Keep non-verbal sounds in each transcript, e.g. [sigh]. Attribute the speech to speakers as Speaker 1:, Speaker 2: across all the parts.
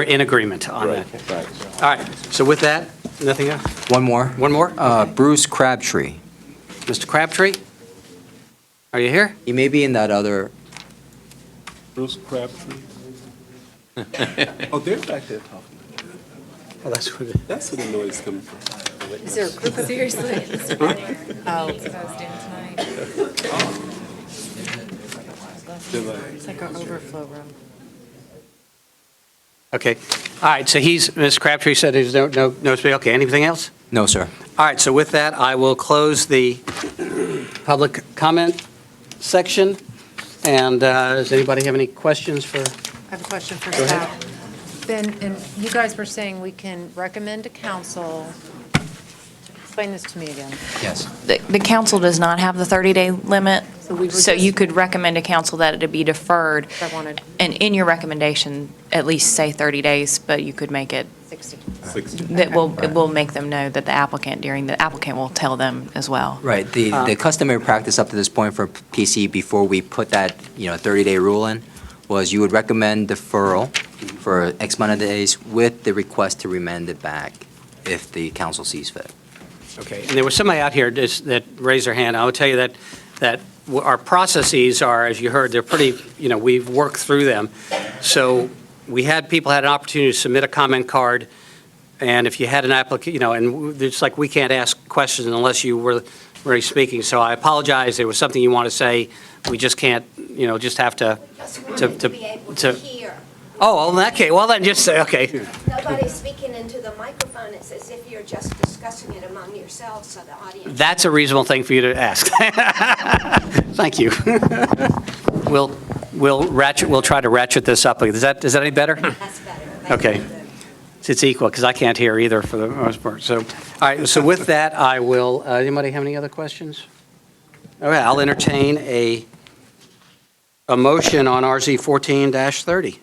Speaker 1: We're in agreement on that. All right, so with that, nothing else?
Speaker 2: One more.
Speaker 1: One more?
Speaker 2: Uh, Bruce Crabtree.
Speaker 1: Mr. Crabtree? Are you here?
Speaker 2: He may be in that other,
Speaker 3: Bruce Crabtree.
Speaker 1: [laughs]
Speaker 3: Oh, they're back there talking.
Speaker 1: Well, Oh, that's what it is.
Speaker 3: That's where the noise is coming from.
Speaker 4: Is there a group of? Seriously. Oh. It's like our overflow room.
Speaker 1: Okay. All right, so he's, Ms. Crabtree said there's no, no, no, speak. okay, anything else?
Speaker 2: no, sir.
Speaker 1: All right, so with that, I will close the public comment section. And uh, does anybody have any questions for?
Speaker 4: I have a question for staff. Ben, and you guys were saying we can recommend to council, explain this to me again.
Speaker 2: Yes.
Speaker 5: The the council does not have the 30-day limit,
Speaker 4: So we were
Speaker 5: so you
Speaker 4: just-
Speaker 5: could recommend to council that it be deferred.
Speaker 4: I wanted
Speaker 5: And in your recommendation, at least say 30 days, but you could make it,
Speaker 4: 60.
Speaker 5: that will, it will make them know that the applicant during, the applicant will tell them as well.
Speaker 2: Right, the, the customary practice up to this point for PC, before we put that, you know, 30-day rule in, was you would recommend deferral for X amount of days with the request to remand it back if the council sees fit.
Speaker 1: Okay, and there was somebody out here just- that raised their hand. I will tell you that, that w- our processes are, as you heard, they're pretty, you know, we've worked through them. So we had, people had an opportunity to submit a comment card, and if you had an applica, you know, and w- it's like, we can't ask questions unless you were already speaking. So I apologize, there was something you want to say, we just can't, you know, just have to,
Speaker 6: Just
Speaker 1: to-
Speaker 6: wanted
Speaker 1: to-
Speaker 6: to be able
Speaker 1: to-
Speaker 6: to hear.
Speaker 1: oh, well, in that case, well, then just say, okay.
Speaker 6: Nobody's speaking into the microphone. It's as if you're just discussing it among yourselves, so the audience.
Speaker 1: That's a reasonable thing for you to ask. [laughs] Thank you. [laughs] We'll, we'll ratchet, we'll try to ratchet this up. Is that, is that any better?
Speaker 6: That's better. Thank
Speaker 1: Okay.
Speaker 6: you.
Speaker 1: It's equal, because I can't hear either for the most part. So, all right, so with that, I will, uh, anybody have any other questions? All right, I'll entertain a, a motion on RZ 14-30.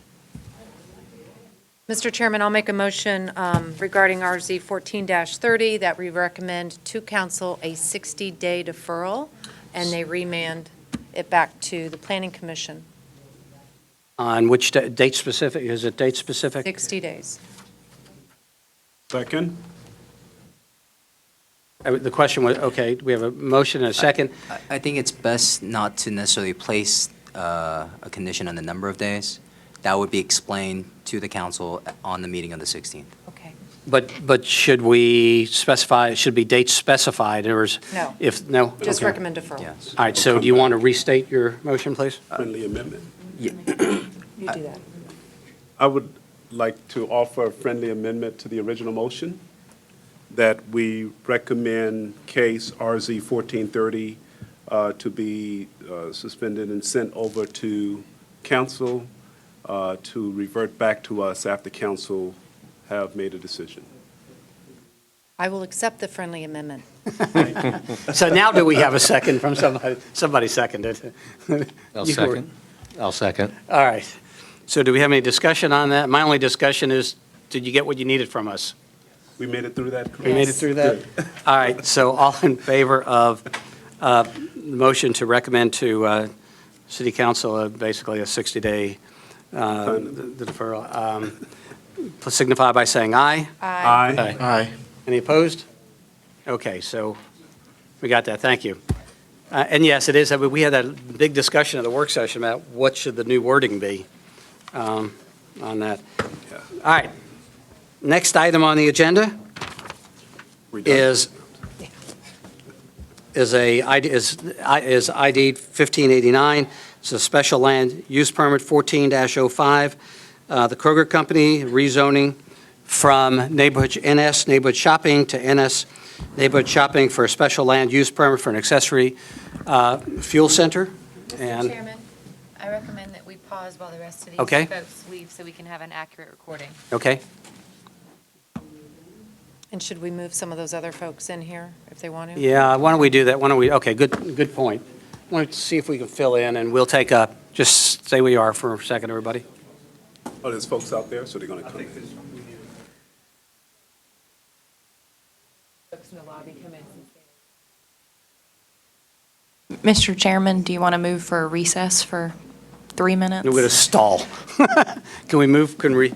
Speaker 4: Mr. Chairman, I'll make a motion um, regarding RZ 14-30 that we recommend to council a 60-day deferral, and they remand it back to the planning commission,
Speaker 1: On which da- date specific, is it date specific?
Speaker 4: 60 days.
Speaker 3: Second?
Speaker 1: Uh, The question was, okay, we have a motion and a second.
Speaker 2: I- I think it's best not to necessarily place uh, a condition on the number of days. That would be explained to the council on the meeting on the 16th.
Speaker 4: Okay.
Speaker 1: But, but should we specify, should be dates specified, or is?
Speaker 4: No.
Speaker 1: If, no?
Speaker 4: Just
Speaker 1: Okay.
Speaker 4: recommend deferral.
Speaker 2: Yes.
Speaker 1: All right, so do you want to restate your motion, please?
Speaker 3: Friendly amendment.
Speaker 4: You do that.
Speaker 3: I would like to offer a friendly amendment to the original motion that we recommend case RZ 1430 uh, to be uh, suspended and sent over to council uh, to revert back to us after council have made a decision.
Speaker 4: I will accept the friendly amendment.
Speaker 1: So now do we have a second from somebody, somebody seconded?
Speaker 7: I'll
Speaker 1: You were-
Speaker 7: second. I'll second.
Speaker 1: All right. So do we have any discussion on that? My only discussion is, did you get what you needed from us?
Speaker 3: We made it through that?
Speaker 1: We made it through that? All right, so all in favor of uh, the motion to recommend to uh, City Council uh, basically a 60-day uh, the deferral, um, please signify by saying aye.
Speaker 3: Aye.
Speaker 7: Aye.
Speaker 1: Any opposed? Okay, so we got that, thank you. Uh, And yes, it is, I mean, we had that big discussion at the work session about what should the new wording be um, on that.
Speaker 3: Yeah.
Speaker 1: All right, next item on the agenda
Speaker 3: We're done.
Speaker 1: is, is a, ID is I- is ID 1589. It's a special land use permit 14-05. Uh, The Kroger Company rezoning from neighborhood NS neighborhood shopping to NS neighborhood shopping for a special land use permit for an accessory uh, fuel center.
Speaker 8: Mr.
Speaker 1: And,
Speaker 8: Chairman, I recommend that we pause while the rest of
Speaker 1: Okay.
Speaker 8: these folks leave so we can have an accurate recording.
Speaker 1: okay,
Speaker 4: And should we move some of those other folks in here if they want to?
Speaker 1: yeah, why don't we do that? Why don't we, okay, good, good point. Want to see if we can fill in, and we'll take a, just stay where you are for a second, everybody.
Speaker 3: Oh, there's folks out there, so they're going to come in.
Speaker 8: Folks in the lobby come in and say-
Speaker 5: Mr. Chairman, do you want to move for a recess for three minutes?
Speaker 1: [laughs] We're going to stall. Can we move, can we,